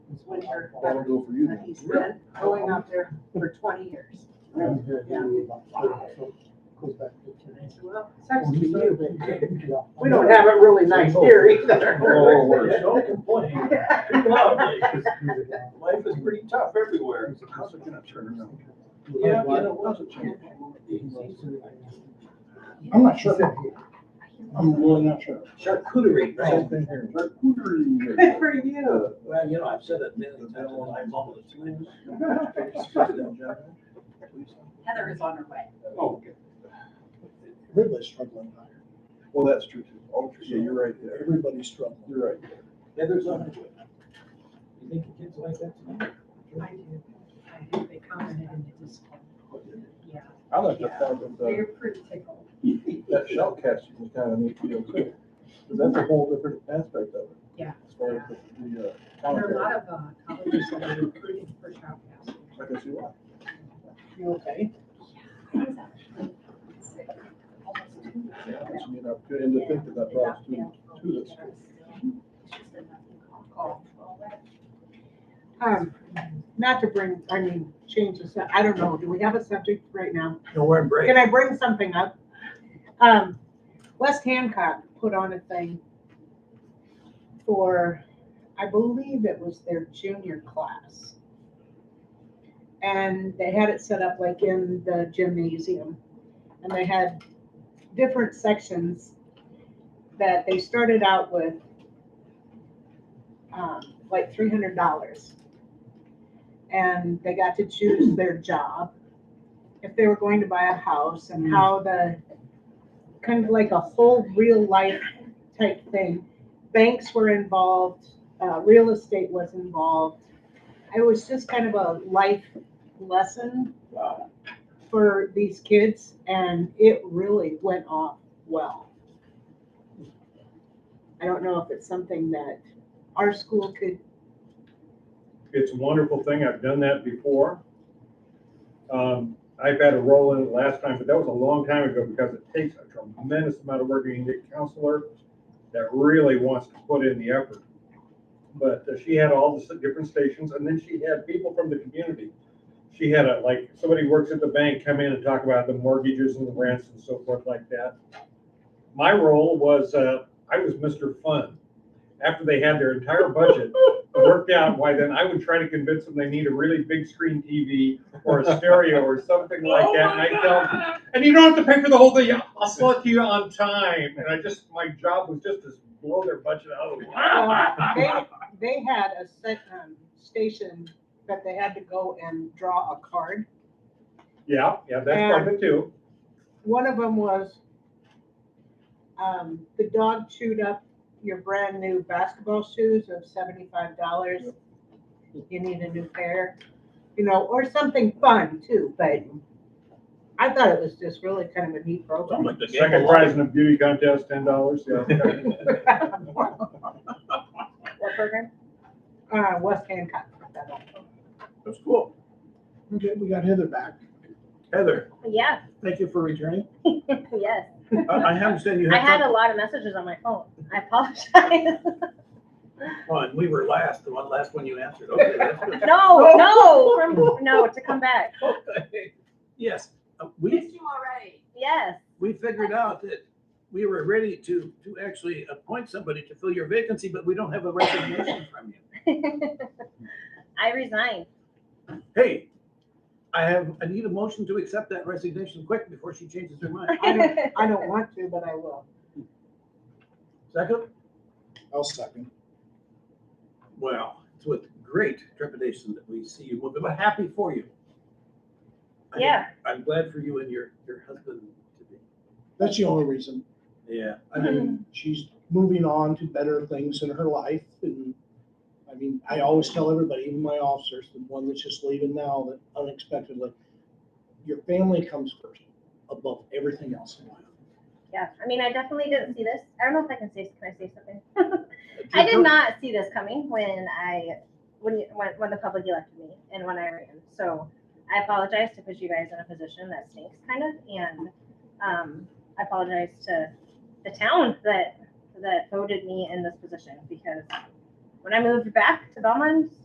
winter That'll weather. go for you. And he's been going out there for twenty years. And I said, well, sucks to you, but we don't have it really nice here either. Oh, worse. Don't complain. Keep loving it, 'cause Life is pretty tough everywhere. How's it gonna turn around? Yeah, you know, what's a change? I'm not sure. I'm really not sure. Charcuterie, right? Good Charcuterie. for you. Well, you know, I've said it many times, and I love it. Heather is on her way. Oh. Everybody's struggling higher. Well, that's true too. Oh, yeah, you're right there. Everybody's struggling. You're right. Heather's on it. You think the kids like that tonight? I do, I do, they commented and it was, yeah, I like the fact that the, they're pretty tickled. that shell casting is kind of neat deal too. 'Cause that's a whole different aspect of it. Yeah. As far as the, the, uh, There are a commentary. lot of uh, colleges that are recruiting for childcare. I can see why. You okay? He's actually sick, almost two. Yeah, it's an opportunity. And to think that that brought us to, to this. Call. Um, not to bring, I mean, change the, sub- I don't know, do we have a subject right now? No, we're in break. Can I bring something up? Um, West Hancock put on a thing for, I believe it was their junior class. And they had it set up like in the gymnasium. And they had different sections that they started out with, um, like three hundred dollars. And they got to choose their job if they were going to buy a house and how the, kind of like a whole real life type thing. Banks were involved, uh, real estate was involved. It was just kind of a life lesson Wow. for these kids and it really went off well. I don't know if it's something that our school could, It's a wonderful thing. I've done that before. Um, I've had a role in it last time, but that was a long time ago because it takes a tremendous amount of work. You need a counselor that really wants to put in the effort. But uh, she had all the s- different stations and then she had people from the community. She had a, like, somebody works at the bank come in and talk about the mortgages and the rents and so forth like that. My role was, uh, I was Mr. Fun. After they had their entire budget, worked out why then I would try to convince them they need a really big screen TV or a stereo or something like that. And I tell them, and you don't have to pay for the whole thing. I'll sell it to you on time. And I just, my job was just to blow their budget out of the Well, water. they, they had a set, um, station that they had to go and draw a card Yeah, yeah, that's part of it too. One of them was, um, the dog chewed up your brand new basketball shoes of seventy-five dollars. You need a new pair, you know, or something fun too, but I thought it was just really kind of a neat program. like the Second prize in a beauty contest, ten dollars, yeah. Uh, What program? Uh, West Hancock. that one. That's cool. Okay, we got Heather back. Heather, Yeah, Thank you for returning. yes. I, I understand you I had had a something lot of messages on my phone. I apologize. on. We were last, the one, last one you answered. Okay, that's good. No, no, from- no, to come back. Okay. Yes, uh, we, you already. Yes, we figured out that we were ready to, to actually appoint somebody to fill your vacancy, but we don't have a resignation from you. I resigned. Hey, I have, I need a motion to accept that resignation quick before she changes her mind. I don't, I don't want to, but I will. Second? I'll second. Well, it's with great trepidation that we see you moving, but happy for you. I mean, Yeah. I'm glad for you and your, your husband to be. That's the only reason. Yeah. I mean, she's moving on to better things in her life and, I mean, I always tell everybody, even my officers, the one that's just leaving now, that unexpectedly, your family comes first above everything else in life. Yeah, I mean, I definitely didn't see this. I don't know if I can say, can I say something? I did not see this coming when I, when, you- when, when the public elected me and when I ran. So I apologize to put you guys in a position that stinks kind of, and, um, I apologize to the town that, that voted me in this position because when I moved back to Belmont,